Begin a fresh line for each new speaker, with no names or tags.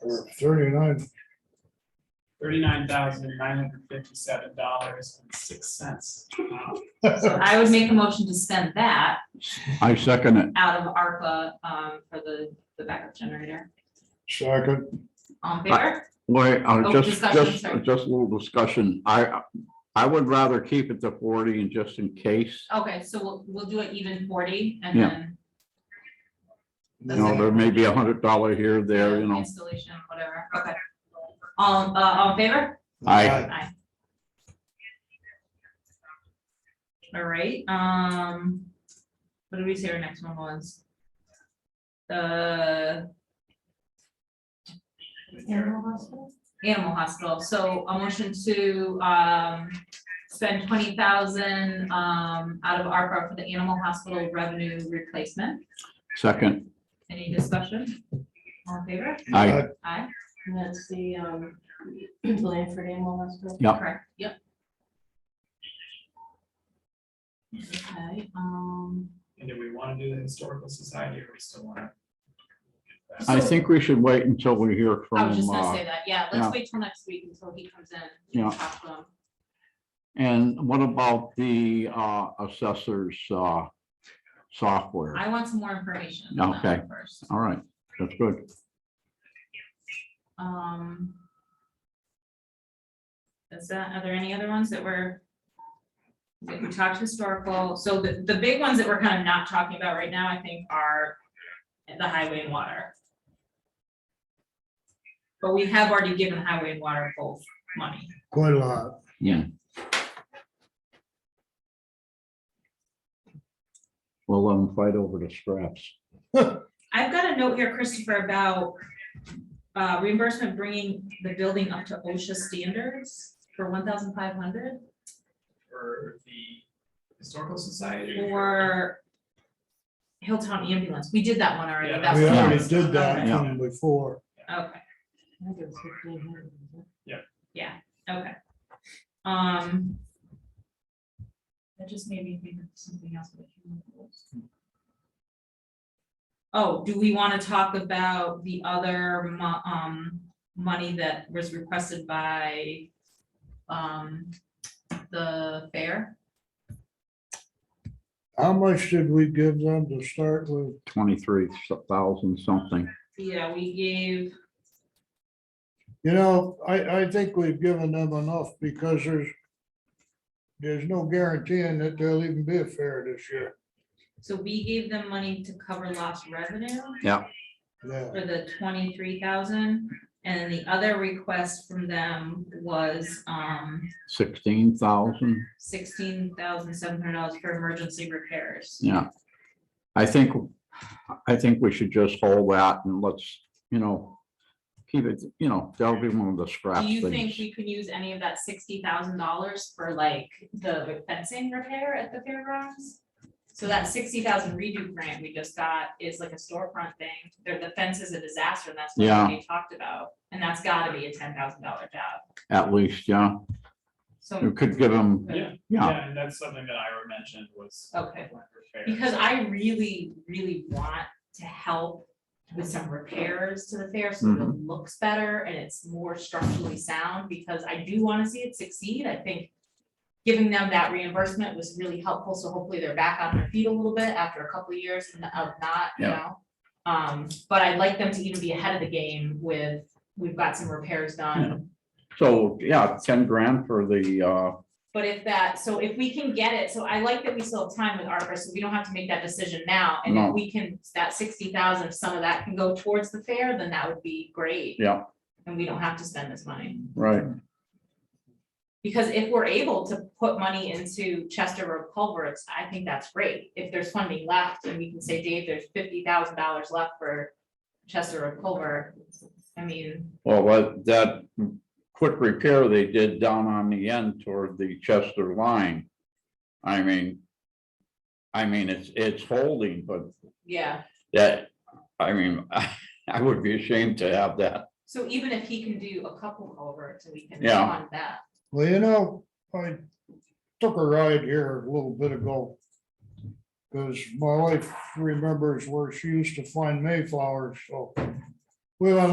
or thirty-nine,
thirty-nine thousand nine hundred fifty-seven dollars and six cents.
So I would make a motion to spend that
I second it.
out of ARPA um for the the backup generator.
second,
All in favor?
Wait, uh,
Oh,
just,
discussion,
just,
sorry.
just a little discussion. I, I would rather keep it to forty and just in case.
Okay, so we'll we'll do it even forty and
Yeah.
then.
You know, there may be a hundred dollar here, there, you know.
Installation, whatever, okay. All uh all in favor?
I,
Aye. All right, um, what did we say our next one was? The Animal hospital? Animal hospital, so a motion to, um, spend twenty thousand, um, out of ARPA for the animal hospital revenue replacement.
second,
Any discussion? All in favor?
I,
Aye.
And that's the, um, Blanford Animal Hospital.
Yeah.
Correct, yep. Okay, um,
And do we want to do the historical society or we still want to?
I think we should wait until we hear
I was
from,
just gonna
uh,
say that, yeah,
yeah.
let's wait till next week until he comes in. we can
Yeah.
talk to him.
and what about the, uh, assessor's, uh, software?
I want some more information. on that one
Okay.
First,
All right, that's good.
um. Is that, are there any other ones that were? that We talked historical, so the, the big ones that we're kind of not talking about right now, I think, are the highway and water. But we have already given highway and water both money.
quite a lot.
Yeah. We'll let them fight over the scraps.
I've got a note here, Christopher, about uh, reimbursement bringing the building up to OSHA standards for one thousand five hundred
For the historical society.
or Hilltown ambulance. We did that one already.
Yeah,
That's
We
the one.
already did that
Okay.
one before.
Okay,
I think it was 1500, wasn't it?
yeah, okay. Um. That just made me think of something else. but I can't remember. Oh, do we want to talk about the other mo- um money that was requested by um the fair?
How much did we give them to start with?
twenty-three thousand something.
Yeah, we gave,
You know, I, I think we've given them enough because there's, there's no guaranteeing that there'll even be a fair this year.
so we gave them money to cover lost revenue
Yeah,
for the twenty-three thousand. And then the other request from them was um
Sixteen thousand,
sixteen thousand seven hundred dollars for emergency repairs.
yeah. I think, I think we should just hold that and let's, you know, keep it, you know, that'll be one of the scrap
Do you think
things.
we could use any of that sixty thousand dollars for like the fencing repair at the fairgrounds? So that sixty thousand redo grant we just got is like a storefront thing, the, the fence is a disaster, and that's
Yeah.
what we talked about, and that's gotta be a ten thousand dollar job,
At least, yeah,
so.
we could give them,
Yeah,
yeah,
yeah, and that's something that Ira mentioned was.
Okay.
fair.
Because I really, really want to help with some repairs to the fair, so that it looks better and it's more structurally sound, because I do wanna see it succeed, I think. Giving them that reimbursement was really helpful, so hopefully they're back on their feet a little bit after a couple of years n- of not, you
Yeah.
know? Um, but I'd like them to even be ahead of the game with, we've got some repairs done,
so, yeah, ten grand for the, uh,
But if that, so if we can get it, so I like that we still have time with ARPA, so we don't have to make that decision now. And
No.
if we can, that sixty thousand, some of that can go towards the fair, then that would be great.
Yeah.
And we don't have to spend this money.
right,
Because if we're able to put money into Chester Road culverts, I think that's great. If there's funding left and we can say, Dave, there's fifty thousand dollars left for Chester Road culvert. I mean,
well, what, that quick repair they did down on the end toward the Chester line. I mean, I mean, it's, it's holding, but
yeah.
that, I mean, I would be ashamed to have that.
So even if he can do a couple culverts and we can
Yeah.
fund that.
well, you know, I took a ride here a little bit ago. Cause my wife remembers where she used to find mayflowers, so we went